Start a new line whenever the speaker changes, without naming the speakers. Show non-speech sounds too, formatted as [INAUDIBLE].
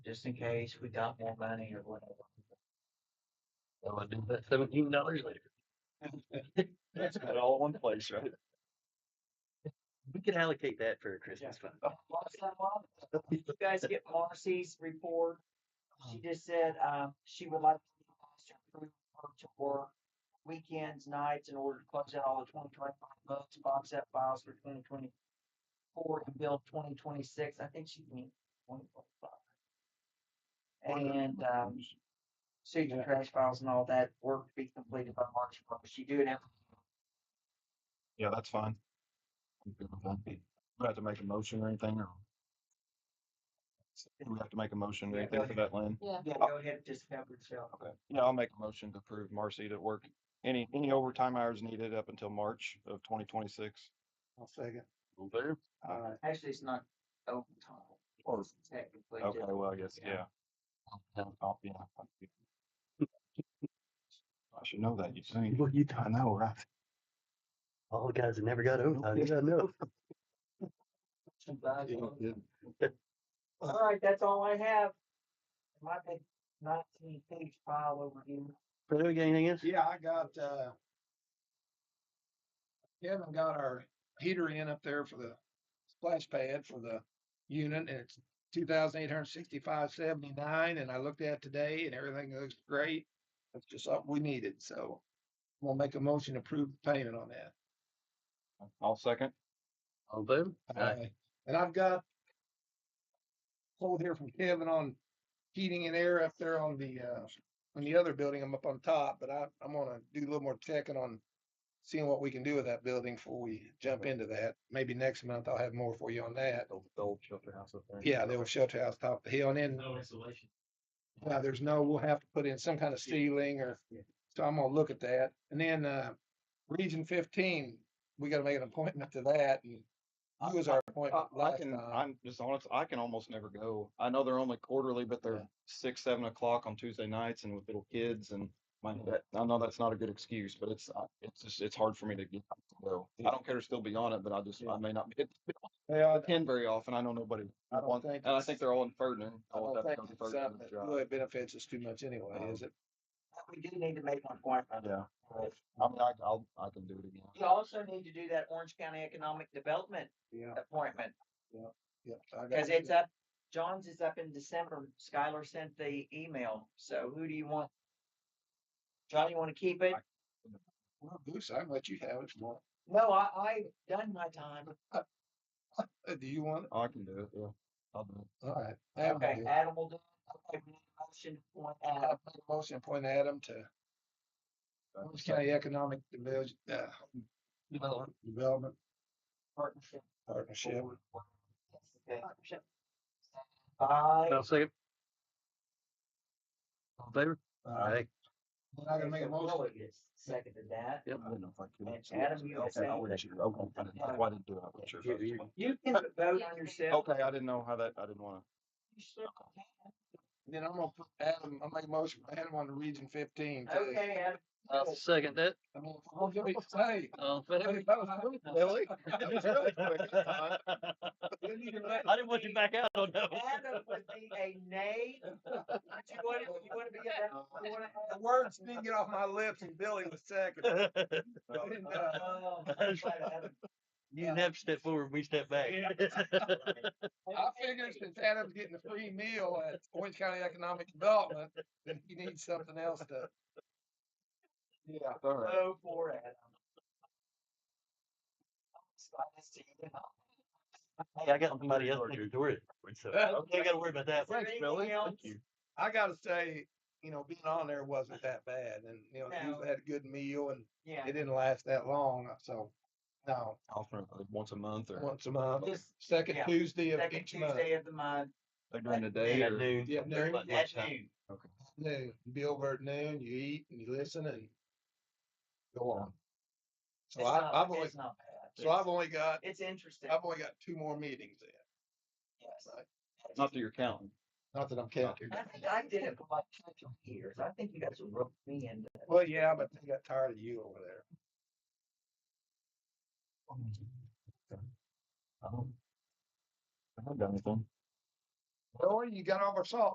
just in case we got more money or whatever.
Well, I do that seventeen dollars later. [LAUGHS]
That's
At all in one place, right?
We could allocate that for a Christmas fund.
Last time on, Oh,
[LAUGHS]
you guys get Marcy's report. She just said, um, she would like us to approve her to work weekends, nights in order to close out all the twenty twenty-five books, box set files for twenty twenty-four and build twenty twenty-six. I think she means twenty twenty-five. And, um, Susan
Yeah.
trash files and all that work to be completed by March first. She do it every
Yeah, that's fine. I'm good with that. Do We have to make a motion or anything or? Do we have to make a motion or
Yeah,
anything
go
for that, Lynn?
Yeah, go ahead, just have it show.
Okay. Yeah, I'll make a motion to approve Marcy to work any, any overtime hours needed up until March of twenty twenty-six.
I'll second.
All there.
Aye.
Actually, it's not overtime.
Or-
It's Technically.
Okay,
just-
well, I guess,
yeah.
yeah. Oh, yeah. I should know that, you think.
Well, you don't know, right?
All the guys that never got overtime, you gotta know.
Too bad.
Yeah, yeah.
All right, that's all I have. My big nineteen page file over here.
Fredo, you got anything else?
Yeah, I got, uh, Kevin got our heater in up there for the splash pad for the unit. and It's two thousand eight hundred sixty-five seventy-nine and I looked at it today and everything looks great. That's just something we needed, so we'll make a motion to approve the payment on that.
I'll second.
All there.
Uh, And I've got hold here from Kevin on heating and air up there on the, uh, on the other building. I'm up on top, but I, I'm gonna do a little more checking on seeing what we can do with that building before we jump into that. Maybe next month I'll have more for you on that.
Old, old shelter house up there.
Yeah, the old shelter house top of the hill and then
No insulation.
yeah, there's no, we'll have to put in some kind of ceiling or, so I'm gonna look at that. And then, uh, region fifteen, we gotta make an appointment to that and who was our appointment
Uh, I
last
can,
time?
I'm just honest, I can almost never go. I know they're only quarterly, but they're six, seven o'clock on Tuesday nights and with little kids and my, that- I know that's not a good excuse, but it's, uh, it's just, it's hard for me to get to go. I don't care to still be on it, but I just, I may not be
Well,
attend very often. I know nobody.
I don't
wants-
think
And I
it's-
think they're all in Ferdinand.
I
all
don't
have to
think
go to
it's
Ferdinand
something that
to drive.
really benefits us too much anyway,
um,
is it?
We do need to make an appointment.
Yeah,
but-
I mean, I, I'll, I can do it again.
You also need to do that Orange County Economic Development
Yeah,
appointment,
yeah. I got
cause
you.
it's up, John's is up in December. Skylar sent the email, so who do you want? John, you wanna keep it?
Well, Goose, I can let you have it. if you want.
No, I, I done my time.
Uh, Do you want it?
I can do it, yeah. I'll do it.
All right. Adam will
Okay,
do it.
Adam will do. it. Okay, we need a motion uh, to appoint Adam.
I'll make a Motion to appoint Adam to
Uh,
Orange
second.
County Economic Devel- uh,
Development.
Development
partnership.
Partnership.
Okay. By.
I'll second. All in favor.
All right. I'm Uh, not gonna make a motion.
Seconded that.
I didn't know if I could.
And Adam, you
Okay, I
said-
wasn't sure. Okay, I didn't- I didn't do it. I wasn't sure if I
You-
was-
you-
You can vote on yourself.
Okay, I didn't know how that, I didn't wanna.
You sure can.
Then I'm gonna put Adam, I'll make a motion for Adam on the region fifteen. too.
Okay, Adam.
I'll second that.
I mean, if we're gonna be- Hey,
All in favor.
hey, that was quick.
Really? That was really quick this [LAUGHS] time.
Didn't even let-
I didn't want you back out on that one.
Adam would be a nay. [LAUGHS] But you want to, you want to be a, [LAUGHS] you want
The words didn't get off
[LAUGHS]
my lips and Billy was second. And, uh, [LAUGHS]
Oh, to.
You didn't have to step forward, we step back.
I figured since Adam's getting a free meal at Orange County Economic Development, then he needs something else to. Yeah,
All right.
Vote for Adam. Excited to see you.
Hey, I got somebody else next door, that works, so I don't think I gotta worry about that.
Is there anything else?
I gotta say, you know, being on there wasn't that bad and, you know, they
No.
usually had a good meal and
Yeah.
it didn't last that long, so. No,
I'll throw it, like, Once a month or
once a month,
Just
second
yeah,
Tuesday of
second
each month.
Tuesday of the month
like during the day
Yeah,
or?
dude.
Yeah, during
Like
at
lunchtime.
noon.
Okay.
noon, Billboard noon, you eat and you listen and go on. So
It's not-
I, I've only,
It's not bad.
so I've only got,
It's interesting.
I've only got two more meetings in.
Yes.
Right.
Not that you're counting.
Not that I'm counting.
I think I did it for like two years. I think you guys roped me into it.
Well, yeah, but they got tired of you over there.
I don't- I haven't done anything.
Well, you got over salt.